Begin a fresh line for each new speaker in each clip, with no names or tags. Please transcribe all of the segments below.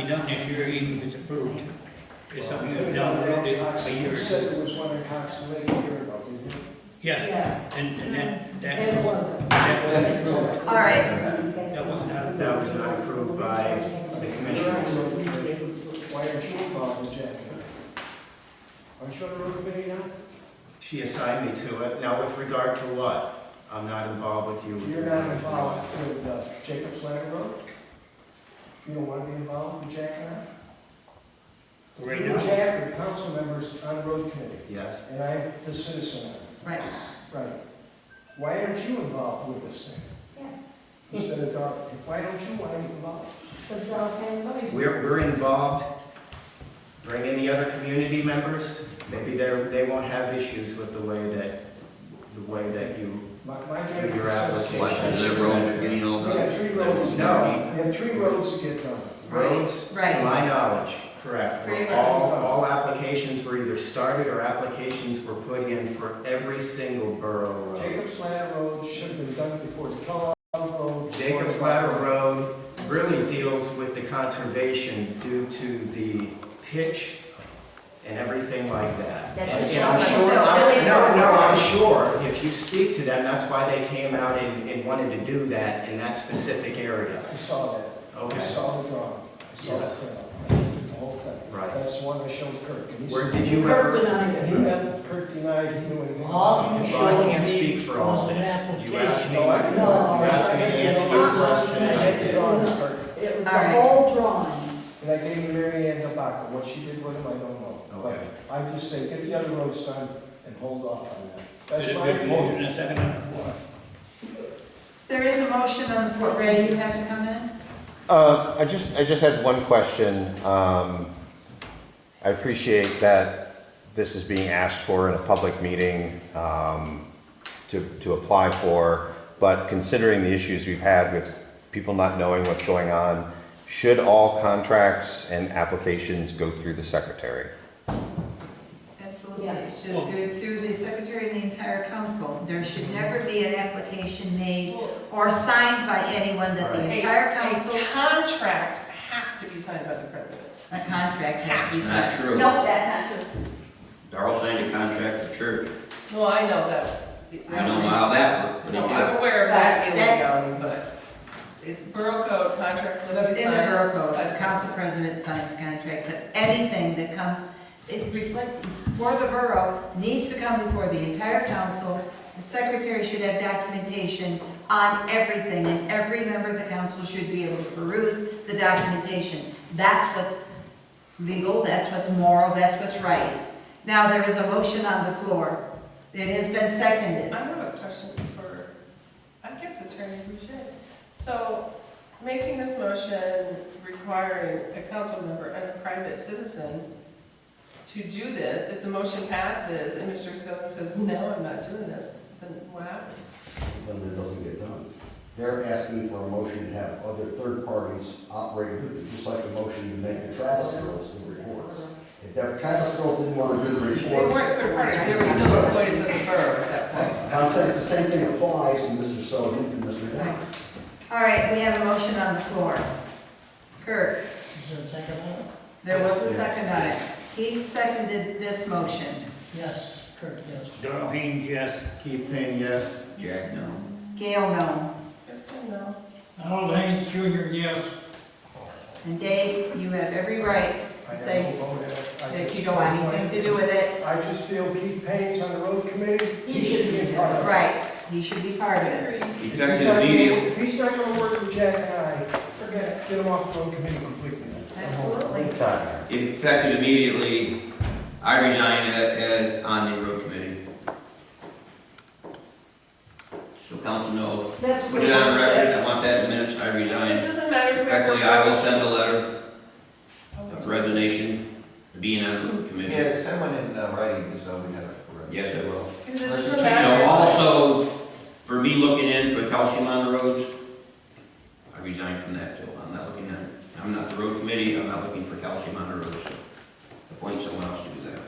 be done this year, even if it's approved. It's something we've done, it's a year.
You said it was one of Cox Lake here about these.
Yes,
Yeah,
and, and that,
and it
that,
wasn't.
that wasn't,
All right,
that wasn't,
That was not approved by the commissioners.
Why aren't you involved in Jack? Aren't you on the road committee now?
She assigned me to it. Now, with regard to what? I'm not involved with you. with
You're
regard
not
to
involved with uh, Jacob's Ladder Road? You don't want to be involved with Jack and I?
right
You and
now.
Jack are council members on the road committee,
what? Yes,
and I'm the citizen on it.
right.
Right. Why aren't you involved with this thing? Instead of, Dar- why don't you want to be involved?
But Darrell County Money's-
we're, we're involved. Bring in the other community members. Maybe they're, they won't have issues with the way that, the way that you.
My, my Jacob
Your application.
What,
Association-
is there road getting all
We
done?
had three roads.
No.
We had three roads to get done.
Roads, to
Right.
my knowledge, correct.
Three
were All, all applications were either started or applications were put in for every single borough road.
Jacob's Ladder Road should have been done before the Kellogg Road.
Jacob's Ladder Road really deals with the conservation due to the pitch and everything like that.
That
And-
should
and I'm
show
sure-
us
I'm-
silly
No, no,
stuff.
I'm sure, if you speak to them, that's why they came out and, and wanted to do that in that specific area.
I saw that. I
Okay.
saw the drawing. I saw the
Yes.
thing, the whole thing.
Right.
That's the one I showed Kirk. and he
Where,
said-
did you
Kirk
ever?
denied
He
it.
meant Kirk denied he knew anything.
All you
Well, I
showed
can't
me
speak for all
was an
this. You asked me, you
application.
No.
asked me to answer your question,
I
and I
had the
did.
drawings, Kirk,
It was the
All right.
whole drawing.
and I gave him Mary Ann Tabaka. What she did with him, I don't know.
Okay.
But I just say, get the other roads done and hold off on that. That's
There's
my
there's a
opinion.
motion and a second on the floor.
There is a motion on the floor. Ray, you have to come in?
Uh, I just, I just had one question. Um, I appreciate that this is being asked for in a public meeting um, to, to apply for, but considering the issues we've had with people not knowing what's going on, should all contracts and applications go through the secretary?
Absolutely.
Yeah.
It should- Through, through the secretary and the entire council. There should never be an application made or signed by anyone that the
A-
entire
A
council,
contract has to be signed by the president.
a contract has to be
That's
signed.
not true.
No, that's not true.
Darrell signed a contract for church.
No, I know that.
I don't know how that worked, but he
No,
did.
I'm aware of that in the
That's-
county, but it's borough code, contract must be
In the
signed.
borough code,
by
the council president signs contracts, but anything that comes, it reflects, for the borough, needs to come before the entire council. The secretary should have documentation on everything, and every member of the council should be able to peruse the documentation. That's what's legal, that's what's moral, that's what's right. Now, there is a motion on the floor. It has been seconded.
I have a question for, I guess Attorney Boucher. So, making this motion requiring a council member and a private citizen to do this, if the motion passes and Mr. Stone says, no, I'm not doing this, then what happens?
then it doesn't get done. They're asking for a motion to have other third parties operate with it, just like the motion to make the Travis girls do reports. If that Travis girl didn't want to do the
They
reports.
weren't third parties, they were still employees of the borough at that point.
I'm saying it's the same thing applies to Mr. Sullivan and Mr. Down.
All right, we have a motion on the floor. Kirk?
Is there a second
There was a second on it. He seconded this motion.
Yes, Kurt, yes.
Darrell Haynes, yes.
Keith Payne, yes.
Jack, no.
Gail, no.
Kristen, no.
Harold Haynes Jr., yes.
And Dave, you have every right
I
to
have
say
no vote in it. I
that
just-
you don't want anything to do with it.
I just feel Keith Payne's on the road committee, he
He
should be a part of it.
Right, he should be part of it.
If he's not
Effective
gonna-
immediately.
If he's not gonna work with Jack and I, forget it, get him off the road committee completely.
Absolutely.
Effective immediately, I resign a- as on the road committee. So council knows,
That's
put
what
it on
he
record,
said.
I want that in minutes, I
It
resign.
doesn't matter if you're.
Effectively, I will send a letter of resignation, being on the road committee.
send one in uh, writing, because we have it.
Yes, I will.
Because it doesn't matter.
So also, for me looking in for calcium on the roads, I resign from that too. I'm not looking at, I'm not the road committee, I'm not looking for calcium on the roads. Appoint someone else to do that.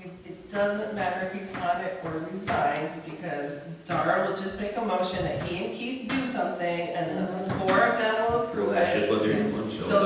He's- It doesn't matter if he's on it or resigns, because Dara will just make a motion that he and Keith do something, and the four of them will
Well,
approve
that's
it.
just what they're doing,
So